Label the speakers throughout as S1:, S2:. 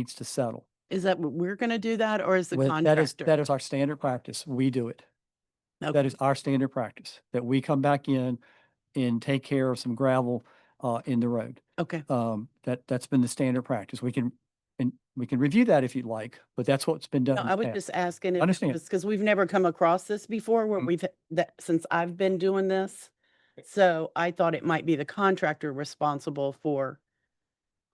S1: needs to settle.
S2: Is that what we're going to do that or is the
S1: With- That is,
S2: contractor?
S1: that is our standard practice. We do it.
S2: Okay.
S1: That is our standard practice, that we come back in and take care of some gravel uh, in the road.
S2: Okay,
S1: Um, That, that's been the standard practice. We can, and we can review that if you'd like, but that's what's been done.
S2: no,
S1: in
S2: I
S1: the
S2: was
S1: past.
S2: just asking.
S1: Understand.
S2: Because we've never come across this before where
S1: Mm.
S2: we've, that, since I've been doing this. So I thought it might be the contractor responsible for,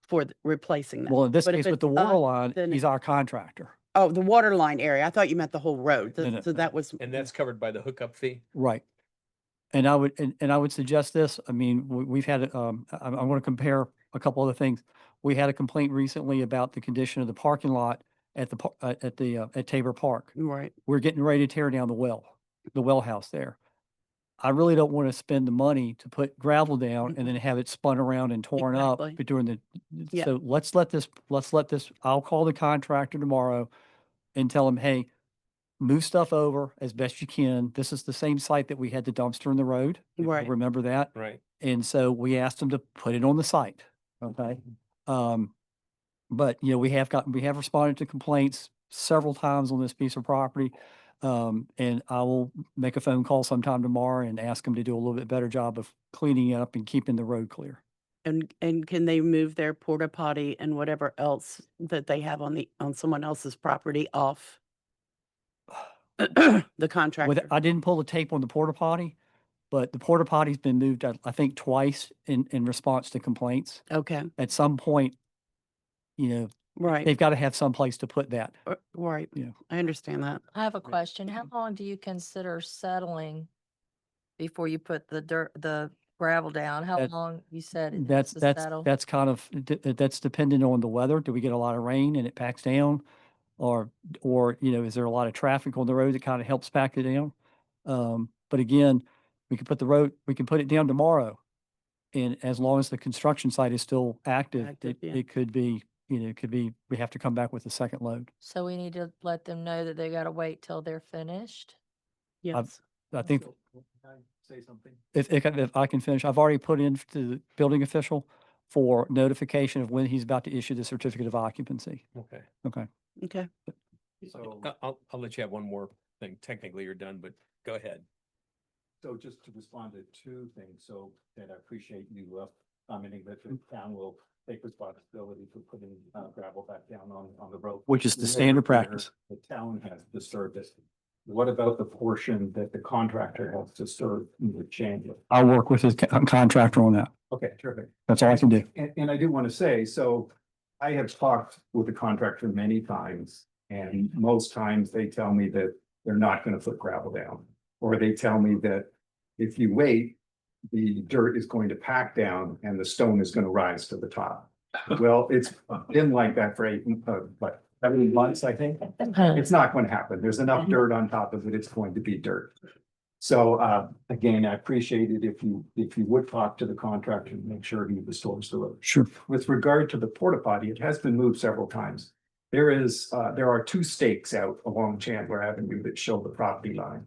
S2: for th- replacing that.
S1: Well, in this
S2: but if
S1: case with
S2: it's
S1: the water
S2: us,
S1: line,
S2: then
S1: he's our contractor.
S2: Oh, the water line area. I thought you meant the whole road.
S1: No,
S2: Th-
S1: no,
S2: So
S1: no.
S2: that was.
S3: And that's covered by the hookup fee?
S1: Right. And I would, and, and I would suggest this, I mean, we, we've had, um, I, I want to compare a couple other things. We had a complaint recently about the condition of the parking lot at the, par- uh, at the, uh, at Tabor Park.
S2: Right.
S1: We're getting ready to tear down the well, the well house there. I really don't want to spend the money to put gravel down and then have it spun around and torn up
S2: Exactly.
S1: b- during the,
S2: Yeah.
S1: so let's let this, let's let this, I'll call the contractor tomorrow and tell him, hey, move stuff over as best you can. This is the same site that we had the dumpster in the road. if you'll
S2: Right.
S1: Remember that?
S3: Right.
S1: And so we asked them to put it on the site. Okay. Um, but you know, we have gotten, we have responded to complaints several times on this piece of property. Um, and I will make a phone call sometime tomorrow and ask them to do a little bit better job of cleaning it up and keeping the road clear.
S2: And, and can they move their porta potty and whatever else that they have on the, on someone else's property off? The
S1: With,
S2: contractor.
S1: I didn't pull the tape on the porta potty, but the porta potty's been moved, I, I think twice in, in response to complaints.
S2: Okay,
S1: At some point, you know,
S2: right,
S1: they've got to have some place to put that.
S2: r- right.
S1: Yeah.
S2: I understand that.
S4: I have a
S3: Yeah.
S4: question. How long do you consider settling before you put the dirt, the gravel down? How
S1: That-
S4: long you said? it takes
S1: That's,
S4: to
S1: that's,
S4: settle?
S1: that's kind of, d- uh, that's dependent on the weather. Do we get a lot of rain and it packs down? Or, or, you know, is there a lot of traffic on the road that kind of helps pack it down? Um, but again, we could put the road, we can put it down tomorrow. And as long as the construction site is still active,
S2: Active,
S1: it,
S2: yeah.
S1: it could be, you know, it could be, we have to come back with a second load.
S4: So we need to let them know that they gotta wait till they're finished?
S2: Yes.
S1: I think
S3: Say something.
S1: if, if, I- if I can finish, I've already put in to the building official for notification of when he's about to issue the certificate of occupancy.
S3: Okay.
S1: Okay.
S2: Okay.
S3: So I'll, I'll let you have one more thing. Technically, you're done, but go ahead.
S5: So just to respond to two things, so that I appreciate you uh, commenting that the town will take responsibility for putting uh, gravel back down on, on the road.
S1: Which is the
S5: Where-
S1: standard
S5: where
S1: practice.
S5: The town has disturbed it. What about the portion that the contractor has disturbed in the chamber?
S1: I'll work with his co- contractor on that.
S5: Okay, terrific.
S1: That's all I can do.
S5: And, and I do want to say, so I have talked with the contractor many times, and most times they tell me that they're not gonna put gravel down. Or they tell me that if you wait, the dirt is going to pack down and the stone is gonna rise to the top. Well, it's been like that for eight, uh, what, seven months, I think. It's not going to happen. There's enough dirt on top of it. It's going to be dirt. So uh, again, I appreciate it if you, if you would talk to the contractor and make sure he restores the road.
S1: Sure.
S5: With regard to the porta potty, it has been moved several times. There is, uh, there are two stakes out along Chandler Avenue that show the property line.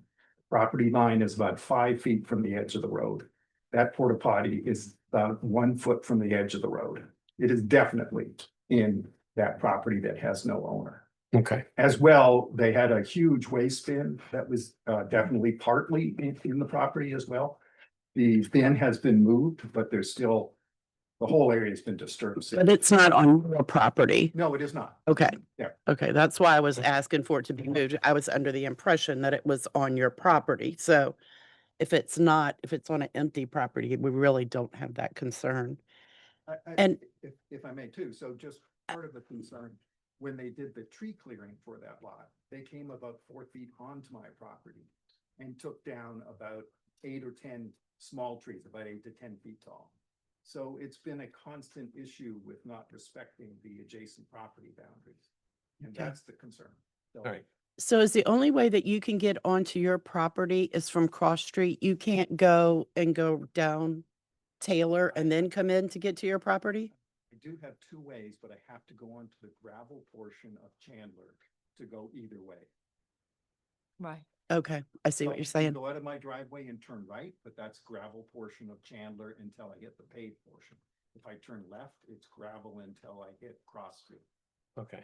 S5: Property line is about five feet from the edge of the road. That porta potty is about one foot from the edge of the road. It is definitely in that property that has no owner.
S3: Okay.
S5: As well, they had a huge waste bin that was uh, definitely partly in, in the property as well. The bin has been moved, but there's still, the whole area's been disturbed.
S2: But it's not on real property.
S5: No, it is not.
S2: Okay.
S5: Yeah.
S2: Okay, that's why I was asking for it to be moved. I was under the impression that it was on your property. So if it's not, if it's on an empty property, we really don't have that concern.
S5: I- I-
S2: And- Uh,
S5: If, if I may too, so just part of the concern, when they did the tree clearing for that lot, they came about four feet onto my property and took down about eight or ten small trees, about eight to ten feet tall. So it's been a constant issue with not respecting the adjacent property boundaries. And
S2: Okay.
S5: that's the concern. So-
S3: All right.
S2: So is the only way that you can get onto your property is from cross street? You can't go and go down Taylor and then come in to get to your property?
S5: I do have two ways, but I have to go onto the gravel portion of Chandler to go either way.
S4: Right.
S2: Okay, I see
S5: So
S2: what you're
S5: you
S2: saying.
S5: Go out of my driveway and turn right, but that's gravel portion of Chandler until I hit the paved portion. If I turn left, it's gravel until I hit Cross Street.
S3: Okay.